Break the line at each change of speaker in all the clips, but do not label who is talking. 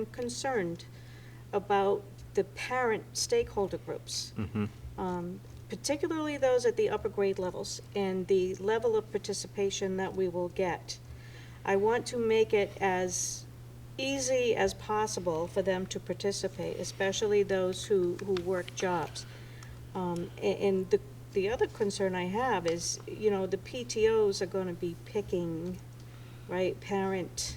I'm concerned about the parent stakeholder groups,
Hmm. Mm-hmm.
um, particularly those at the upper grade levels, and the level of participation that we will get. I want to make it as easy as possible for them to participate, especially those who, who work jobs. Um, a- And the, the other concern I have is, you know, the PTOs are gonna be picking, right, parent,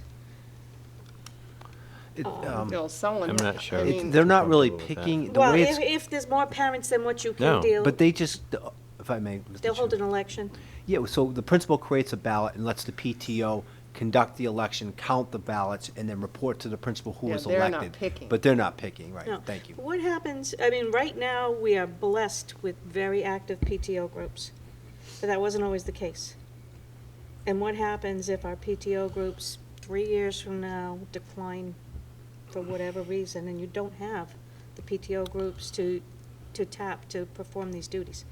It,
Oh,
um,
Bill, someone.
I'm not sure.
I
it-
mean,
They're not really
Comfortable with that.
picking, the
well,
way
if,
it's,
if there's more parents than what you can
No.
deal.
but they just, if I may. Mr.
They'll hold
Chair.
an election.
Yeah, so the principal creates a ballot and lets the PTO conduct the election, count the ballots, and then report to the principal who
Yeah,
was
they're
elected.
not picking.
But they're not picking, right,
No.
thank you.
What happens, I mean, right now, we are blessed with very active PTO groups, but that wasn't always the case. And what happens if our PTO groups, three years from now, decline for whatever reason, and you don't have the PTO groups to, to tap to perform these duties?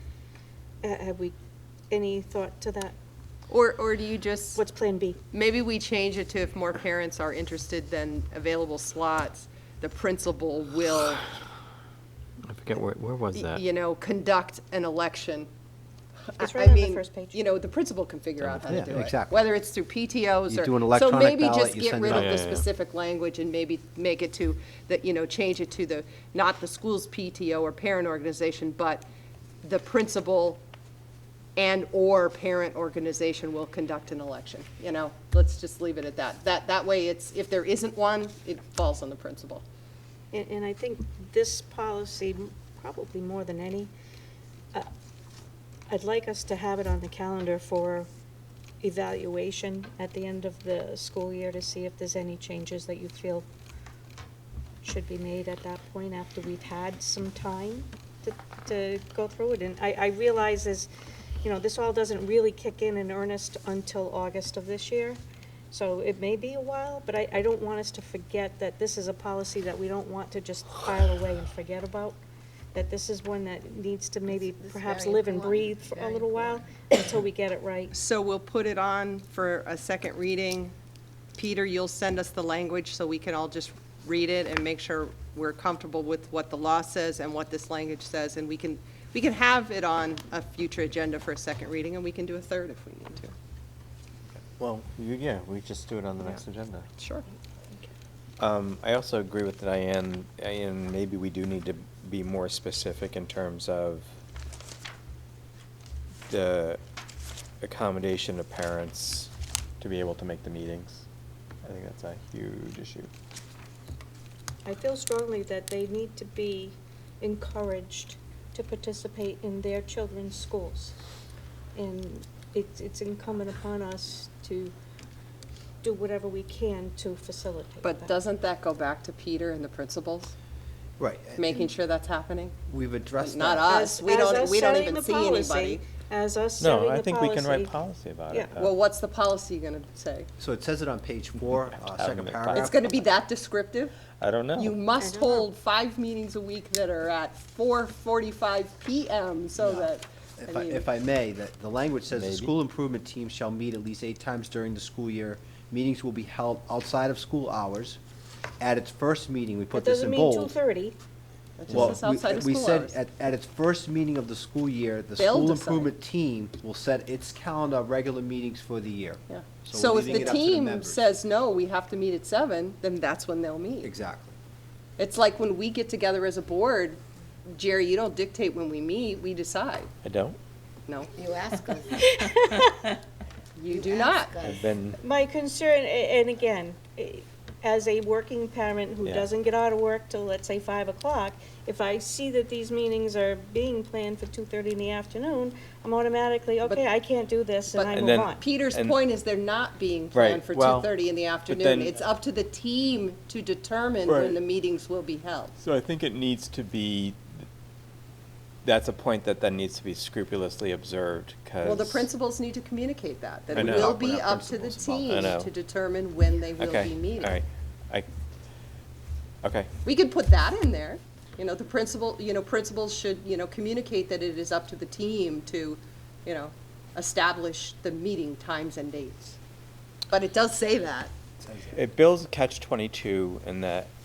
Uh, Have we, any thought to that?
Or, or do you just,
What's Plan B?
maybe we change it to if more parents are interested than available slots, the principal will,
I forget where, where was that?
you know, conduct an election. I-
It's
I
right on the
mean,
first page.
You know, the principal can figure out how to
Yeah,
do it.
exactly.
Whether it's through PTOs
You
or.
do an electronic
So maybe
ballot,
just
you
get
send
rid
it
of
out.
the
Yeah, yeah, yeah.
specific language and maybe make it to, that, you know, change it to the, not the school's PTO or parent organization, but the principal and/or parent organization will conduct an election, you know? Let's just leave it at that. That, that way it's, if there isn't one, it falls on the principal.
And, and I think this policy, probably more than any, uh, I'd like us to have it on the calendar for evaluation at the end of the school year to see if there's any changes that you feel should be made at that point after we've had some time to, to go through it. And I, I realize is, you know, this all doesn't really kick in in earnest until August of this year. So it may be a while, but I, I don't want us to forget that this is a policy that we don't want to just file away and forget about. That this is one that needs to maybe
This is
perhaps
very
live and
important,
breathe for a
very
little while until we get it right.
So we'll put it on for a second reading. Peter, you'll send us the language so we can all just read it and make sure we're comfortable with what the law says and what this language says. And we can, we can have it on a future agenda for a second reading, and we can do a third if we need to.
Well, you- yeah, we just do it on the next agenda.
Sure.
Um, I also agree with Diane, and maybe we do need to be more specific in terms of the accommodation of parents to be able to make the meetings. I think that's a huge issue.
I feel strongly that they need to be encouraged to participate in their children's schools. And it's, it's incumbent upon us to do whatever we can to facilitate that.
But doesn't that go back to Peter and the principals,
Right.
making sure that's happening?
We've addressed
Not
that.
us, we
As- as us
don't, we don't
setting
even
the
see
policy-
anybody.
As us setting the
No,
policy.
I think we can write policy about
Yeah.
it.
Well, what's the policy gonna say?
So it says it on page four, uh, second
It's
paragraph.
It's gonna be that descriptive?
I don't know.
You must
I don't know.
hold five meetings a week that are at four forty-five PM, so
No.
that,
If
I
I,
mean-
if I may, the, the language says the
Maybe.
school improvement team shall meet at least eight times during the school year. Meetings will be held outside of school hours. At its first meeting, we put
It
this
doesn't
in
mean
bold.
two thirty.
that
Well,
just is outside of
we-
school
We
hours.
said, at, at its first meeting of the school year, the
They'll
school
decide.
improvement team will set its calendar of regular meetings for the year.
Yeah.
So
So
we're
if
leaving
the
it up to the
team
members.
says, no, we have to meet at seven, then that's when they'll meet.
Exactly.
It's like when we get together as a board, Jerry, you don't dictate when we meet, we decide.
I don't.
No,
You ask us.
you do not.
ask us.
I've been,
My concern, a- and again, eh, as a working parent who
Yeah.
doesn't get out of work till, let's say, five o'clock, if I see that these meetings are being planned for two-thirty in the afternoon, I'm automatically, okay, I can't do this, and
but-
I
And
move
then-
on.
Peter's
And-
point is they're not being
Right,
planned for
well,
two thirty in the afternoon.
then-
It's up to the team to determine
Right.
when the meetings will be held.
so I think it needs to be, that's a point that then needs to be scrupulously observed, because.
Well, the principals need to communicate that, that
I
it
know.
will
Talk
with
be
our
up to the
principals
about
team
that. I know.
to determine when they will
Okay,
be meeting.
All right, I, okay,
We could put that in there, you know, the principal, you know, principals should, you know, communicate that it is up to the team to, you know, establish the meeting times and dates. But it does say that.
it builds catch twenty-two in that